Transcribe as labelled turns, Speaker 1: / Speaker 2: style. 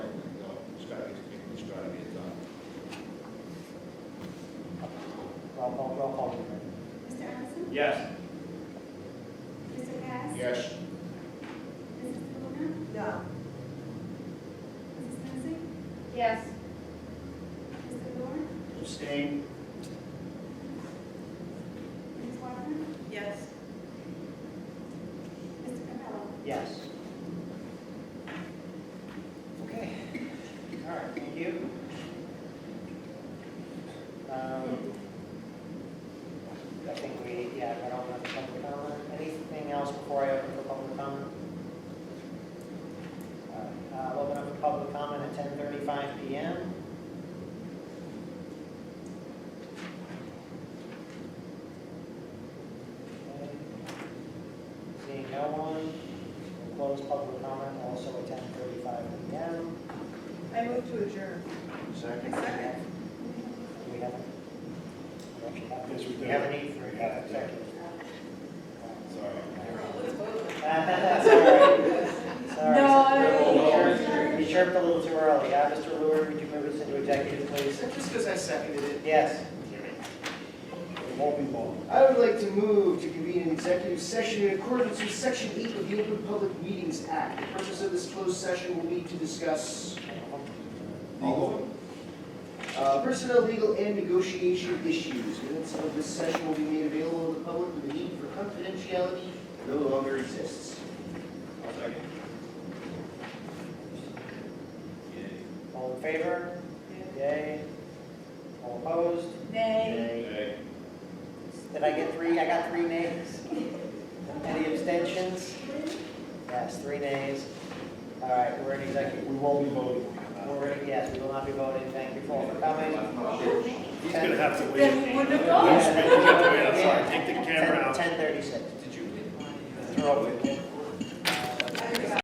Speaker 1: call, roll call, please.
Speaker 2: Mr. Allison?
Speaker 3: Yes.
Speaker 2: Mr. Cass?
Speaker 3: Yes.
Speaker 2: Mrs. Luna?
Speaker 4: No.
Speaker 2: Mrs. Lindsay?
Speaker 4: Yes.
Speaker 2: Mr. Dorn?
Speaker 3: Abstain.
Speaker 2: Ms. Wagner?
Speaker 4: Yes.
Speaker 2: Mr. Capello?
Speaker 3: Yes. Okay. All right, thank you. Um, I think we, yeah, I don't have public comment. Anything else before I open for public comment? All right, uh, I'll open up for public comment at ten thirty-five PM. Okay. Seeing no one, we'll close public comment also at ten thirty-five PM.
Speaker 4: I move to adjourn.
Speaker 3: Second.
Speaker 4: Second.
Speaker 3: Do we have, we actually have.
Speaker 5: Yes, we do.
Speaker 3: We have a need for a
Speaker 5: Yeah.
Speaker 3: executive.
Speaker 5: Sorry.
Speaker 3: That's all right. Sorry.
Speaker 4: No.
Speaker 3: You chirped- You chirped a little too early. Yeah, Mr. Lewis, would you move us into executive, please?
Speaker 6: Just because I seconded it.
Speaker 3: Yes.
Speaker 5: It won't be long.
Speaker 6: I would like to move to convene an executive session in accordance with Section 8 of the Open Public Meetings Act. The purpose of this closed session will be to discuss
Speaker 5: All of them?
Speaker 6: uh, personnel, legal, and negotiation issues. Minutes of this session will be made available to the public with the need for confidentiality no longer exists.
Speaker 3: All in favor? Yay. All opposed?
Speaker 4: Nay.
Speaker 3: Yay. Did I get three? I got three nays. Any abstentions? Yes, three nays. All right, we're in executive.
Speaker 5: We won't be voting.
Speaker 3: We're in, yes, we will not be voting. Thank you all for coming.
Speaker 5: He's gonna have to wait.
Speaker 4: Then we wouldn't have gone.
Speaker 5: He's gonna have to wait outside. Take the camera out.
Speaker 3: Ten thirty-six.
Speaker 5: Did you?
Speaker 3: Throw it. Uh,